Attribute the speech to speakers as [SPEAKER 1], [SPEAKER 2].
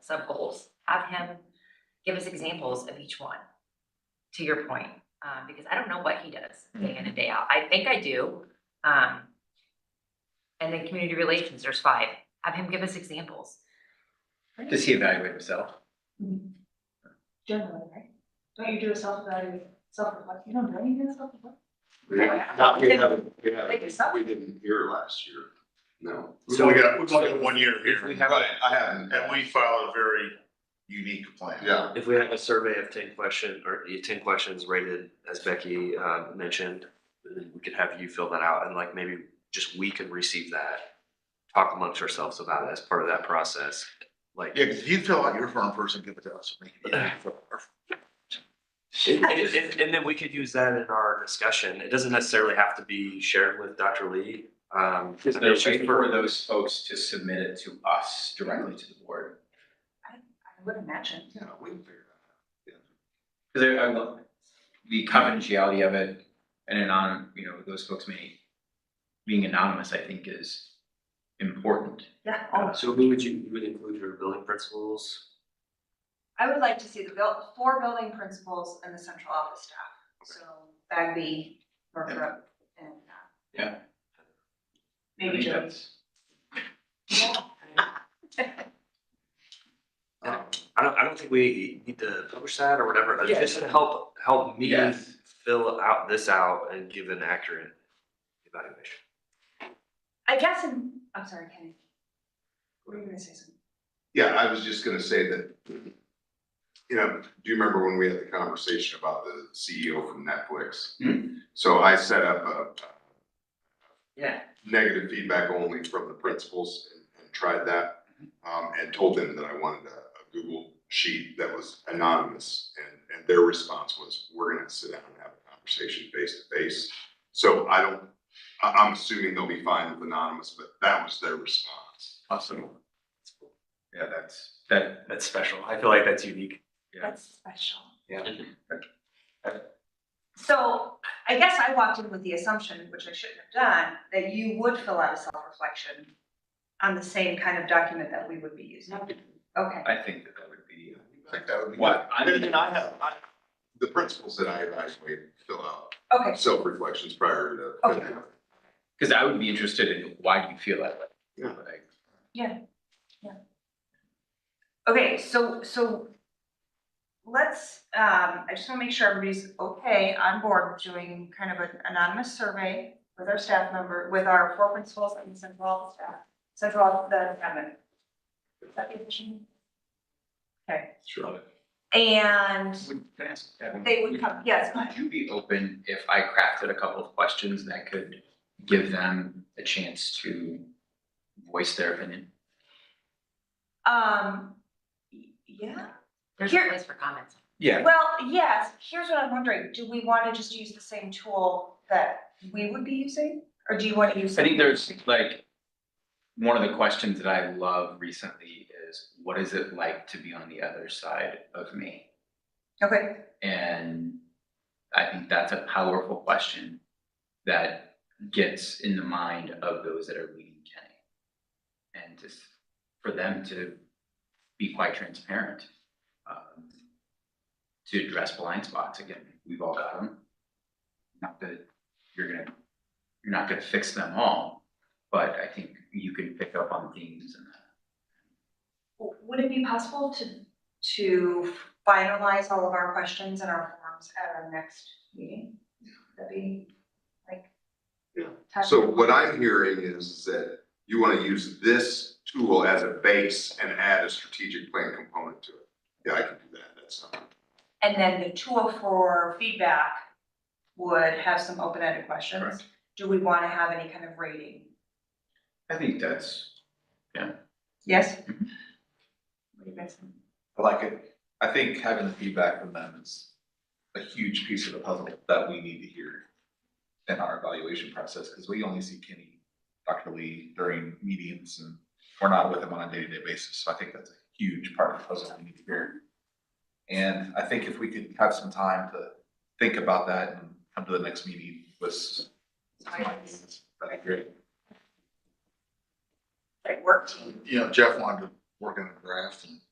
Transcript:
[SPEAKER 1] sub goals, have him give us examples of each one. To your point, uh, because I don't know what he does day in and day out. I think I do. Um. And then community relations, there's five. Have him give us examples.
[SPEAKER 2] Does he evaluate himself?
[SPEAKER 3] Generally, right? Don't you do a self-evaluation, self-reflect, you don't do anything self-reflect?
[SPEAKER 4] We haven't, we haven't, we haven't, we didn't hear last year, no.
[SPEAKER 5] We've only got, we've only got one year here.
[SPEAKER 4] We haven't, I haven't,
[SPEAKER 5] And we filed a very unique plan.
[SPEAKER 4] yeah,
[SPEAKER 6] If we have a survey of ten question or yeah, ten questions rated as Becky um mentioned, then we could have you fill that out and like maybe just we can receive that. Talk amongst ourselves about it as part of that process, like.
[SPEAKER 5] Yeah, because if you fill out your form first and give it to us, we can get it.
[SPEAKER 6] And, and- and then we could use that in our discussion. It doesn't necessarily have to be shared with Dr. Lee. Um,
[SPEAKER 2] Is
[SPEAKER 6] I
[SPEAKER 2] there
[SPEAKER 6] mean,
[SPEAKER 2] a way
[SPEAKER 6] she's-
[SPEAKER 2] for those folks to submit it to us directly to the board?
[SPEAKER 3] I would imagine.
[SPEAKER 4] yeah, we can figure
[SPEAKER 2] Cause I, I love the confidentiality of it and anon, you know, those folks may, being anonymous, I think is important.
[SPEAKER 3] Yeah.
[SPEAKER 6] uh, So who would you, you would include your building principals?
[SPEAKER 3] I would like to see the buil- four building principals and the central office staff. So Bagby, Northrop, and. uh,
[SPEAKER 2] Yeah. I
[SPEAKER 3] Maybe
[SPEAKER 2] think
[SPEAKER 3] Joe.
[SPEAKER 2] that's-
[SPEAKER 6] Um, I don't, I don't think we need to publish that or whatever, but
[SPEAKER 2] Yeah.
[SPEAKER 6] just to help, help me
[SPEAKER 2] Yes.
[SPEAKER 6] fill out this out and give an accurate evaluation.
[SPEAKER 3] I guess, in- I'm sorry, Kenny. What were you gonna say something?
[SPEAKER 4] Yeah, I was just gonna say that, you know, do you remember when we had the conversation about the CEO from Netflix?
[SPEAKER 2] Hmm.
[SPEAKER 4] So I set up a
[SPEAKER 2] Yeah.
[SPEAKER 4] negative feedback only from the principals and- and tried that.
[SPEAKER 2] Mm-hmm.
[SPEAKER 4] Um, and told them that I wanted a, a Google sheet that was anonymous and, and their response was, we're gonna sit down and have a conversation face to face. So I don't, I, I'm assuming they'll be fine with anonymous, but that was their response.
[SPEAKER 2] Awesome. Yeah, that's, that,
[SPEAKER 7] That's special. I feel like that's unique.
[SPEAKER 2] Yeah.
[SPEAKER 3] That's special.
[SPEAKER 2] Yeah.
[SPEAKER 3] So I guess I walked in with the assumption, which I shouldn't have done, that you would fill out a self-reflection on the same kind of document that we would be using. Okay,
[SPEAKER 2] I think that that would be. uh,
[SPEAKER 4] I think that would be.
[SPEAKER 2] What? I mean-
[SPEAKER 4] And I have, I, the principles that I evaluate fill out
[SPEAKER 3] okay,
[SPEAKER 4] self-reflections prior to.
[SPEAKER 3] Okay.
[SPEAKER 2] Cause I would be interested in why do you feel that way?
[SPEAKER 4] Yeah.
[SPEAKER 2] Like,
[SPEAKER 3] okay, so, so let's, um, I just wanna make sure everybody's okay on board with doing kind of an anonymous survey with our staff member, with our four principals and the central office staff, central, office- the department. Is that the issue? Okay,
[SPEAKER 4] Sure.
[SPEAKER 3] and
[SPEAKER 2] Would, can I ask? Kevin,
[SPEAKER 3] They would come- yes, go ahead.
[SPEAKER 2] Would you be open if I crafted a couple of questions that could give them a chance to voice their opinion?
[SPEAKER 3] Um, y- yeah,
[SPEAKER 1] There's
[SPEAKER 3] Here-
[SPEAKER 1] a place for comments.
[SPEAKER 2] Yeah.
[SPEAKER 3] well, yes, here's what I'm wondering, do we wanna just use the same tool that we would be using? Or do you wanna use?
[SPEAKER 2] I think
[SPEAKER 3] something-
[SPEAKER 2] there's like, one of the questions that I love recently is, what is it like to be on the other side of me?
[SPEAKER 3] Okay,
[SPEAKER 2] And I think that's a powerful question that gets in the mind of those that are leading Kenny. And just for them to be quite transparent, um, to address blind spots again, we've all got them. Not that you're gonna, you're not gonna fix them all, but I think you can pick up on themes and that.
[SPEAKER 3] W- would it be possible to, to finalize all of our questions and our forms at our next meeting? That'd be like.
[SPEAKER 4] Yeah.
[SPEAKER 3] time-
[SPEAKER 4] So what I'm hearing is that you wanna use this tool as a base and add a strategic plan component to it. Yeah, I can do that, that's not.
[SPEAKER 3] And then the tool for feedback would have some open-ended questions.
[SPEAKER 2] Correct.
[SPEAKER 3] Do we wanna have any kind of rating?
[SPEAKER 2] I think that's,
[SPEAKER 3] Yes?
[SPEAKER 2] Mhm.
[SPEAKER 3] What do you guys think?
[SPEAKER 8] I like it. I think having the feedback from them is a huge piece of the puzzle that we need to hear in our evaluation process, because we only see Kenny, Dr. Lee during meetings and we're not with him on a day-to-day basis. So I think that's a huge part of the puzzle we need to hear. And I think if we could have some time to think about that and come to the next meeting with some ideas, that'd be great.
[SPEAKER 3] Like work team.
[SPEAKER 5] You know, Jeff wanted to work on a draft and